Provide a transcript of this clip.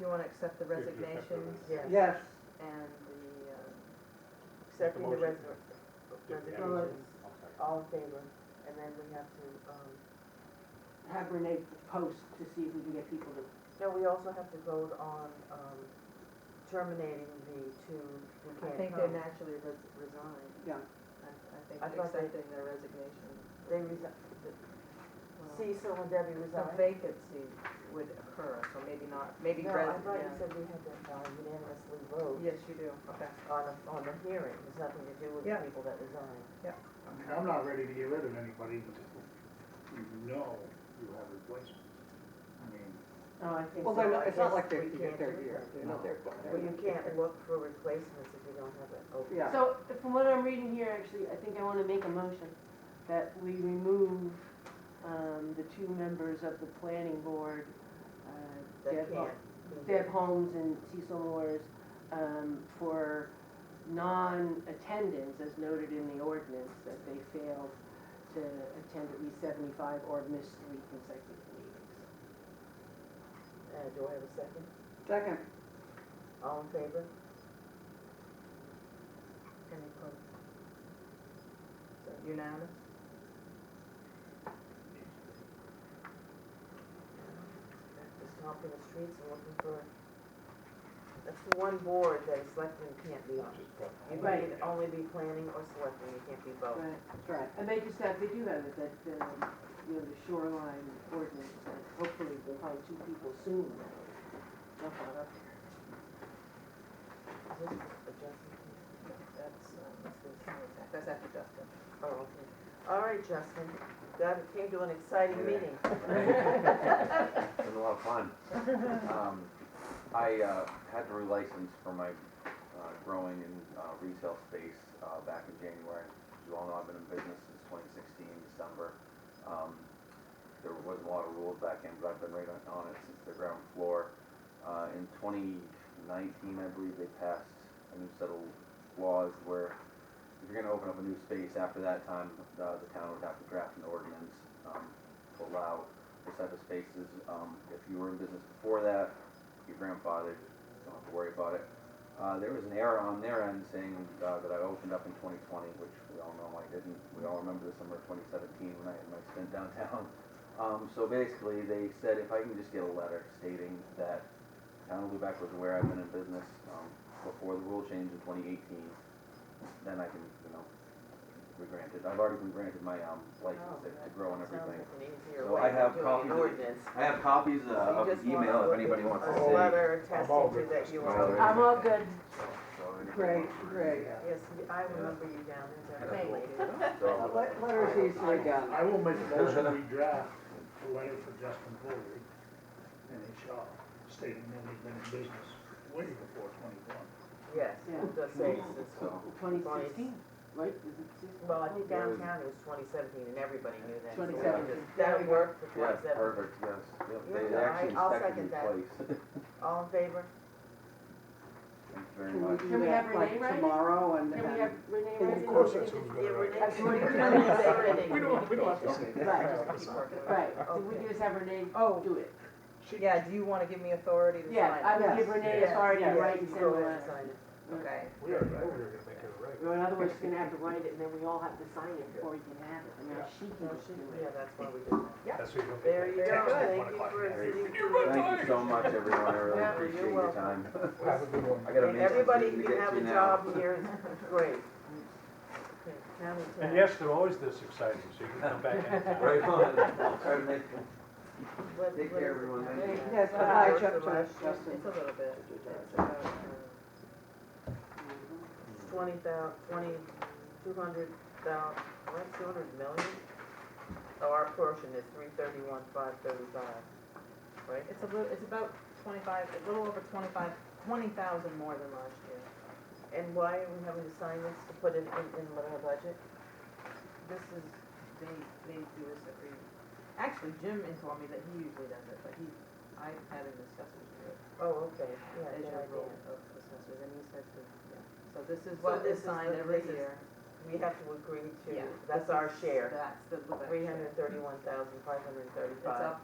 you want to accept the have to accept the resignations Yes, Yes, and the, uh, accepting the motion. resor- Yeah, resignations, I'll second. all in favor, and then we have to, um, have Renee post to see if we can get people to, no, we also have to vote on, um, terminating the two who I can't think they come. naturally res- resign. I yeah. I think I thought they- accepting their resignation, They resign, well, Cecil and Debbie some resigned. vacancy would occur, so maybe not, maybe No, I res, thought you yeah. said we had to uh, unanimously vote Yes, you do, okay. on a, on a hearing, it's nothing to do with the Yeah. people that resigned. I mean, I'm not ready to get rid of anybody until you know you have replacement. I mean, No, Oh, I think Well, they're so. not, I it's not guess like they're, we they're can't do here, that. they're not there. Well, you can't look for replacements if you don't have oh, it open. Yeah. So from what I'm reading here, actually, I think I want to make a motion that we remove um, the two members of the planning board, uh, That Deb Ho- can't. be- Deb Holmes and Cecil Moore's, um, for non-attendance as noted in the ordinance, that they failed to attend at least 75 or miss three consecutive meetings. Uh, do I have a second? Second, All in favor? Any opposed? Unanimous? Just hopping the streets and looking for, that's the one board that a selectman can't be on. just got. You Right. can only be planning or selectman, you can't be both. Right. that's right. And they just have, they do have it, that, um, you know, the shoreline ordinance, that hopefully we'll find two people soon. That's all up there. Is this adjustment? That's, uh, that's the- that's after Justin. Oh, okay. All right, Justin, that came to an exciting meeting. It was a lot of fun. Um, I uh, had to relicense for my uh, growing and uh, retail space uh, back in January. As you all know, I've been in business since 2016, December. Um, There wasn't a lot of rules back then, but I've been right on- on it since the ground floor. Uh, In 2019, I believe, they passed a new set of laws where if you're gonna open up a new space after that time, uh, the town would have to draft an ordinance um, to allow this type of spaces. Um, if you were in business before that, your grandfather, don't have to worry about it. Uh, there was an error on their end saying uh, that I opened up in 2020, which we all know I didn't. We all remember the summer of 2017 when I had my stint downtown. Um, so basically, they said if I can just get a letter stating that town of Lubec was aware I've been in business um, before the rule change in 2018, then I can, you know, be granted. I've already been granted my um, license to- to grow and Oh, everything. Sounds like an easier So way I of have doing copies an of- ordinance. I have copies uh, So you of just the want email if a- anybody wants to see. A letter all attesting good. to that you I'm are. all I'm all good. Great, great. Yes, you- I remember you down there, Thank definitely. Uh, So, let- Letters easily done. uh, I will make a motion, we draft a letter for Justin Foley, NHL, stating that he's been in business way before twenty-one. Yes, Yeah. the same as this one. so, Twenty sixteen, right? Is it sixteen? Well, I think There was- downtown it was twenty seventeen and everybody knew that. so we 2017. just- That worked for yeah, twenty seventeen. perfect, yes. Yep, They Yeah, I- actually I'll inspected the second place. All in favor? Thank you very Can we much. do Can we have that, like, Renee write it? Tomorrow and. Can we and- have Renee Of write it? course that sounds Yeah, Renee- We Absolutely. don't have to say anything. We don't, we don't have to say that. Right. Just keep working. Right, Okay. we just have Renee Oh, do it. yeah, do you want to give me authority to sign? Yeah, I would Yes. give Renee authority to Yeah, write you can and send a go ahead and letter. sign it. Okay, We already know we were gonna make it right. Or in other words, she's gonna have to write it and then we all have to sign it before you can have it. I mean, she can No, just she, do it. yeah, that's why we did that. That's what you're looking There at. you go, Text at thank one you o'clock. for sitting Thank you so much, everyone. I really Yeah, you're appreciate your welcome. time. Have a good one. I got a And message everybody to who get have to a now. job here is great. Okay, county And tax. yes, they're always this exciting, so you can come back anytime. Right on. I'll try to make them. What- Take what is it? care, everyone. Thank you. Yes, but I jumped on Justin. it's a little bit. It's about, uh, Twenty thou, twenty, two hundred thou, what, two hundred million? Oh, our portion is three thirty-one, five thirty-five, right? It's a little, it's about twenty-five, a little over twenty-five, twenty thousand more than last year. And why are we having to sign this to put it in, in our budget? This is, they, they do this every, actually Jim informed me that he usually does it, but he, I had a discussion with him. Oh, okay, yeah, good As your role idea. of assessors, and he said to, yeah. So this is So what this is is signed the- every this is year. We have to agree to, Yeah, that's this our is- share, That's the Lubec three share. hundred thirty-one thousand, five hundred It's up thirty-five.